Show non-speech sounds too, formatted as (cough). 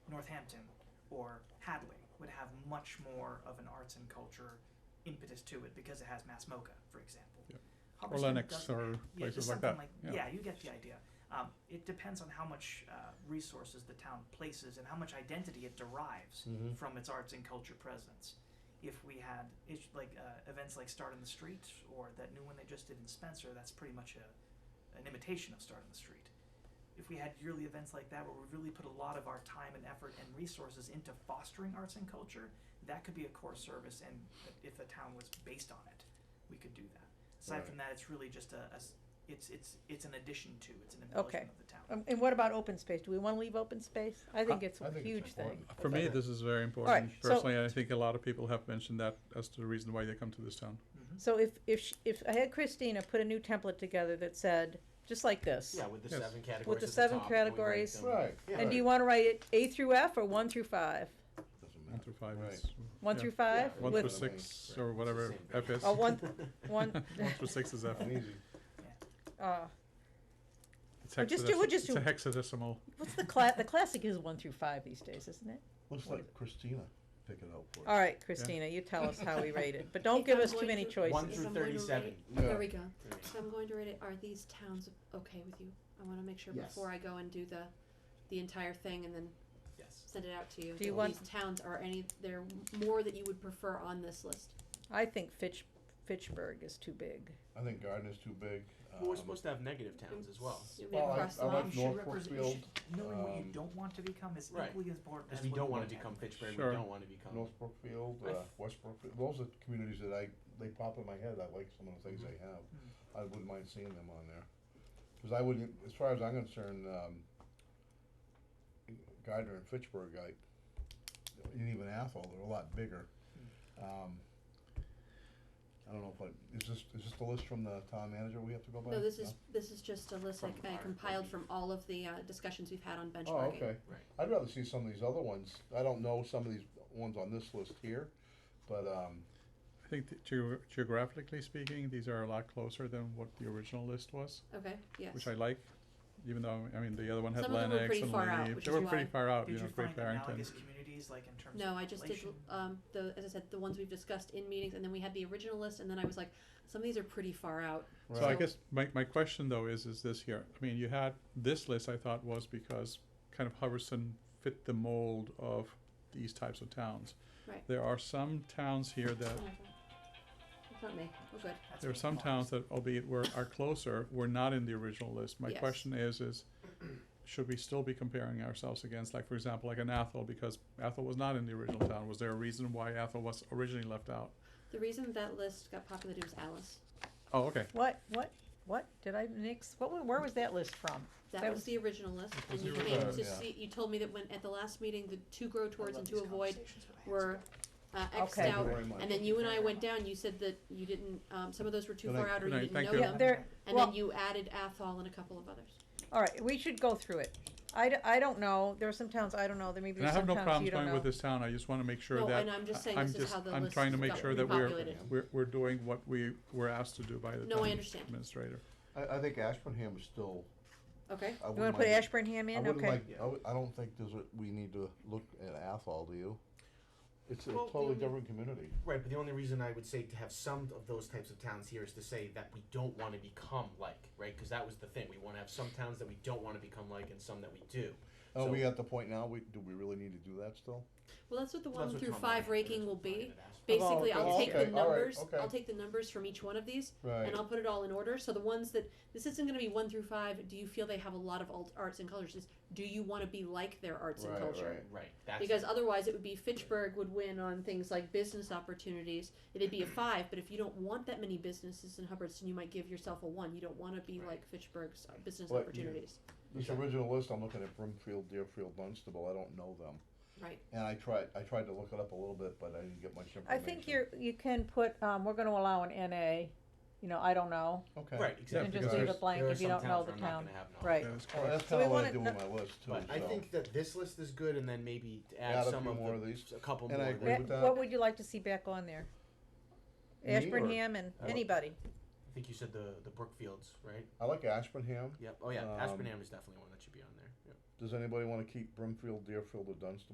Northampton or Hadley would have much more of an arts and culture impetus to it because it has Mass Mocha, for example. Yeah. Or Hubbardston Lennox doesn't- or yeah, just places like something that. yeah. you get the idea. Um, it depends on how much uh, resources the town places and how much identity it derives Mm-hmm. Mhm. from its arts and culture presence. If we had ish, like uh, events like Start in the Street or that new one they just did in Spencer, that's pretty much a, an imitation of Start in the Street. If we had yearly events like that where we really put a lot of our time and effort and resources into fostering arts and culture, that could be a core service. And if the town was based on it, we could do that. Aside Right. from that, it's really just a, a s- it's it's it's an addition to, it's an embellishment Okay. of the town. Um, and what about open space? Do we wanna leave open space? I think I- it's I a think it's huge thing. important. For me, this is very important. so- Personally, I think a lot of people have mentioned that as to the reason why they come to this town. Mhm. So if, if, sh- if I had Christina put a new template together that said, just like this. Yeah, with the Yes. seven categories. With the at seven top, and we rank categories. them. Right. And do you wanna write it A through F or one through five? Doesn't One matter. through five Right. is. One yeah. through five? Yeah. One With through six Right. or whatever It's the same F is. Oh, one, (laughs) one, (laughs) One through six (laughs) is F. An easy. uh, It's Or just do- we'll hexadeci- just It's a do- hexadecimal. what's the cla- the classic is one through five these days, isn't it? Let's let Christina pick it out for us. All right, Christina, you tell us how (laughs) we rate it, but don't If give I'm us too going many to- choices. One If through I'm going to thirty-seven. rate- Yeah. There we go. There we So I'm going to rate it, are these towns okay with you? I wanna make sure Yes. before I go and do the, the entire thing and then Yes. send it out to you. Do you that want- These towns are any, there more that you would prefer on this list? I think Fitch, Fitchburg is too big. I think Gardner's too big. Well, we're um, supposed to have negative towns as well. You may Well, Mm-hmm. I- cross I them like off. You should North represent- you Brookfield, should- Knowing what you um, don't want to become is Right. equally as important as Because we what don't you want want to become Fitchburg, Sure. we don't want to become. North Brookfield, I uh, f- West Brookfield, those are communities that I, they pop in my head, I like some of the Mm-hmm. things they have. Mm-hmm. I wouldn't mind seeing them on there. Cause I wouldn't, as far as I'm concerned, um, Gardner and Fitchburg, I, and even Athol, they're a lot bigger. Mm-hmm. Um, I don't know if I, is this, is this the list from the town manager we have to go by? No, this is, this is just a list I From I our compiled review. from all of the, uh, discussions we've had on benchmarking. Oh, okay. Right. I'd rather see some of these other ones. I don't know some of these ones on this list here, but, um, I think that geo- geographically speaking, these are a lot closer than what the original list was, Okay, yes. which I like. Even though, I mean, the other one had Some of them were Lennox pretty and far out, Lee. which They is were pretty why- far out, you Did know, you Great find Barrington. analogous communities, like in terms No, of I just did, population? um, the, as I said, the ones we've discussed in meetings, and then we had the original list, and then I was like, some of these are pretty far out. So I Right. guess my, my question though is, is this here, I mean, you had, this list I thought was because kind of Hubbardston fit the mold of these types of towns. Right. There are some towns here that, It's not me, we're good. That's there are what some you want. towns that albeit were, are closer, were not in the original list. My Yes. question is, is should we still be comparing ourselves against, like, for example, like an Athol, because Athol was not in the original town, was there a reason why Athol was originally left out? The reason that list got populated was Alice. Oh, okay, What, what, what, did I mix, what, wa- where was that list from? That That was was- the original list, That and was you the made, original, to yeah. see, you told me that when, at the last meeting, the two grow I towards love and these two avoid conversations with my were, husband. uh, Xed Okay. out. Very much. And then you and I went down, you said that you didn't, um, some of those were too Good far night. out or Good you night. didn't Thank know you. Yeah, them, there, and well- then you added Athol and a couple of others. all right, we should go through it. I, d- I don't know, there are some towns I don't know, there may be and I some have no towns problems you don't going with know. this town, I just wanna make sure No, that and I'm just saying I'm this is just- how the I'm list trying to make got sure that we're- repopulated. we're, we're doing what we were asked to do by the No, I town understand. administrator. I, I think Ashburnham is still. Okay, I You wanna wouldn't put mind- Ashburnham I in, wouldn't okay? like, I would- I don't think there's a, we need to look at Athol, do you? It's a Well, totally the- different community. Right, but the only reason I would say to have some of those types of towns here is to say that we don't want to become like, right? Because that was the thing. We want to have some towns that we don't want to become like and some that we do. Are Oh, So- Oh, we at the point now, we, do we really need to do that still? well, that's what the Well, that's one what through Tom five Ryan- ranking that's will what Tom Ryan be. had asked. Basically, okay, I'll take the okay, all right, numbers, I'll okay. take the numbers from each one of these, Right. and I'll put it all in order. So the ones that this isn't going to be one through five. Do you feel they have a lot of alt, arts and cultures? It's, do you want to be like their arts Right, and culture? right. Right. That's Because otherwise, it would be Fitchburg would win on things like business opportunities. It'd be a five, but if you don't want that many businesses in Hubbardston, you might give yourself a one. You don't want to be Right. like Fitchburg's uh, business Well, you- opportunities, This original list, I'm looking at Brimfield, Deerfield, Dunstable, I don't know them. right? And I tried, I tried to look it up a little bit, but I didn't get much I information. think you're, you can put, um, we're gonna allow an NA, you know, I don't know, Okay. Right, exactly. and because just leave there's- it blank there are if you some don't know towns the where I'm town, not gonna have knowledge. right. That is Well, correct. that's So we kinda what I wanna do kno- with my list too, But I so. think that this list is good, and then maybe to Add add a some few of more the, of these. a couple And I more. agree that- That- with that. Eh, What would you like to see back on there? Me or- Ashburnham and Uh, anybody, I think you said the the Brookfields, right? I like Ashburnham. Yep. Oh yeah, Um, Aspinam is definitely one that should be on there. Yep. Does anybody wanna keep Brimfield, Deerfield, or Dunstable?